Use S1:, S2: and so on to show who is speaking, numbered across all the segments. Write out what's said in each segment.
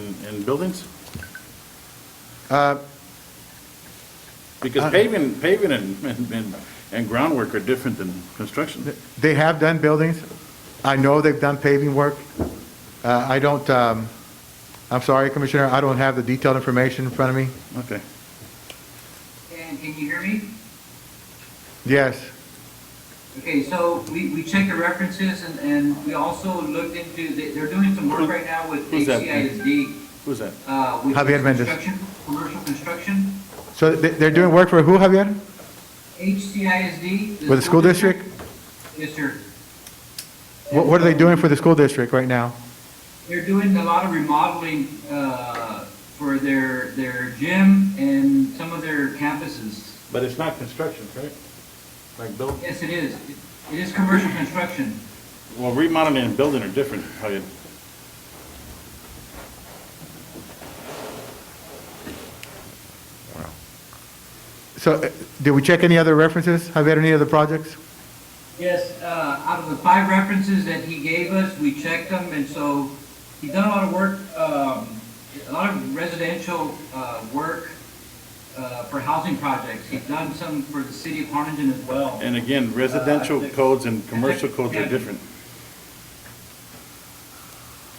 S1: and buildings?
S2: Uh,
S1: Because paving, paving and, and- and, and groundwork are different than construction.
S2: They have done buildings. I know they've done paving work. Uh, I don't, um, I'm sorry, Commissioner, I don't have the detailed information in front of me.
S1: Okay.
S3: And can you hear me?
S2: Yes,
S3: Okay, so we, we checked the references and, and we also looked into, they- they're doing some work right now with
S1: Who's that?
S3: HCISD.
S1: Who's that?
S3: uh, with
S2: Javier Mendez.
S3: construction, Commercial construction,
S2: so they- they're doing work for who, Javier?
S3: HCISD.
S2: For the school district?
S3: Yes, sir.
S2: What what are they doing for the school district right now?
S3: They're doing a lot of remodeling uh, for their, their gym and some of their campuses.
S1: But it's not construction, right? Like build,
S3: Yes, it is. It- It is commercial construction.
S1: well, remodeling and building are different, how you,
S2: So uh, did we check any other references, Javier, any other projects?
S3: Yes, uh, out of the five references that he gave us, we checked them, and so he's done a lot of work, um, a lot of residential uh, work uh, for housing projects. He's done some for the city of Harlingen as well.
S1: and again, residential codes and commercial codes are different.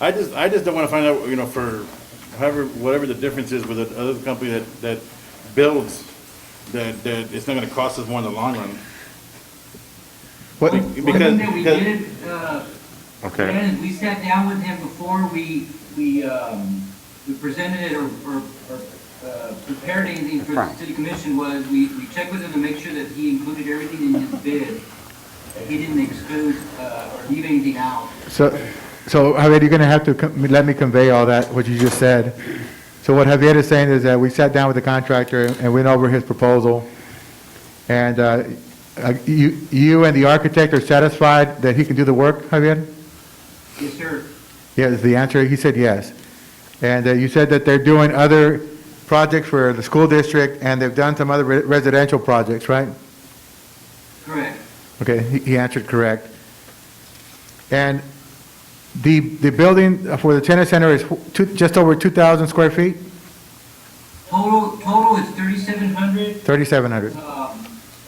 S1: I just, I just don't wanna find out, you know, for however, whatever the difference is with another company that, that builds, that, that it's not gonna cost us more in the long run.
S2: What,
S3: One
S1: Because,
S3: thing that we
S1: because,
S3: did, uh, Brandon, we sat down with him before we, we, um, we presented it or, or, or, uh, prepared anything for the city commission was, we, we checked with him to make sure that he included everything in his bid. That he didn't exclude, uh, or leave anything out.
S2: so, so Javier, you're going to have to com- let me convey all that, what you just said. So what Javier is saying is that we sat down with the contractor and went over his proposal, and uh, uh, you you and the architect are satisfied that he can do the work, Javier?
S3: Yes, sir.
S2: Yes, the answer, he said yes. And uh, you said that they're doing other projects for the school district, and they've done some other re- residential projects, right?
S3: Correct.
S2: Okay, he- he answered correct. And the, the building for the tennis center is wh- two- just over 2,000 square feet?
S3: Total, total is thirty-seven hundred,
S2: 3,700.
S3: um,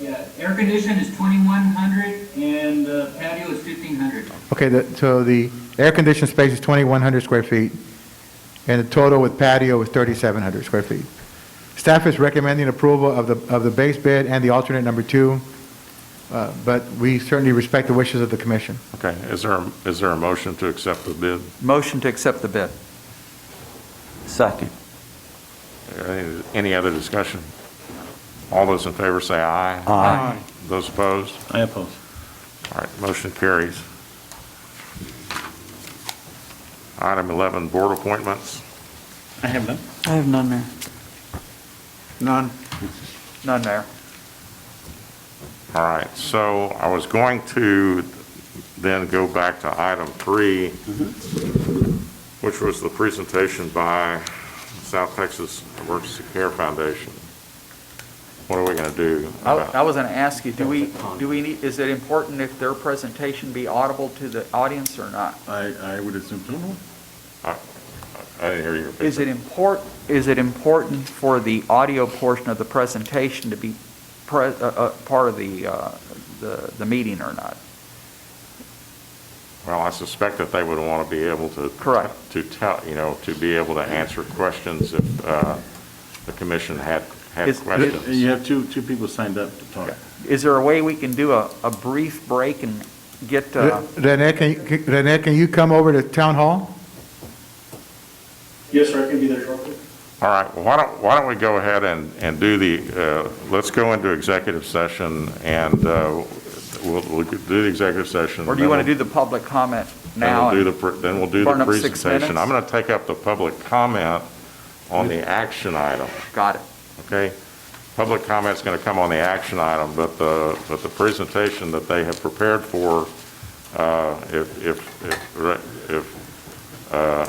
S3: yeah, air condition is twenty-one hundred, and uh, patio is fifteen hundred.
S2: Okay, the- so the air-conditioned space is 2,100 square feet, and the total with patio is 3,700 square feet. Staff is recommending approval of the, of the base bid and the alternate number two, uh, but we certainly respect the wishes of the commission.
S4: Okay, is there, is there a motion to accept the bid?
S5: Motion to accept the bid. Second.
S4: Any- Any other discussion? All those in favor say aye.
S5: Aye.
S4: Those opposed?
S1: I oppose.
S4: All right, motion carries. Item 11, board appointments.
S1: I have none.
S5: I have none, Mayor.
S2: None.
S5: None, Mayor.
S4: All right, so I was going to then go back to item three, which was the presentation by South Texas Emergency Care Foundation. What are we going to do?
S5: I
S4: about-
S5: I was going to ask you, do we, do we need, is it important if their presentation be audible to the audience or not?
S1: I, I would assume so.
S4: I didn't hear your opinion.
S5: Is it import, is it important for the audio portion of the presentation to be pre, uh, uh, part of the, uh, the, the meeting or not?
S4: Well, I suspect that they would want to be able to.
S5: Correct.
S4: To tell, you know, to be able to answer questions if uh, the commission had, had
S5: Is-
S4: questions.
S1: You have two, two people signed up to talk.
S5: Is there a way we can do a, a brief break and get, uh,
S2: Renee, can, you- can- Renee, can you come over to town hall?
S6: Yes, sir, I can be there shortly.
S4: All right, well, why don't, why don't we go ahead and, and do the, uh, let's go into executive session and uh, we'll, we'll do the executive session.
S5: or do you want to do the public comment now?
S4: Then we'll do the, pre- then we'll do
S5: burn
S4: the
S5: up six
S4: presentation.
S5: minutes?
S4: I'm going to take up the public comment on the action item.
S5: Got it.
S4: okay? Public comment's going to come on the action item, but the, but the presentation that they have prepared for, uh, if, if, if Ra- if uh,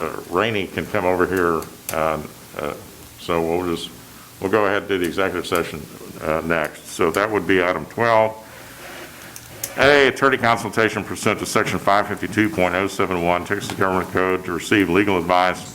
S4: uh, Rainey can come over here, uh, uh, so we'll just, we'll go ahead and do the executive session uh, next. So that would be item 12. A, attorney oh consultation pursuant to section 552.071 Texas Government Code to receive legal advice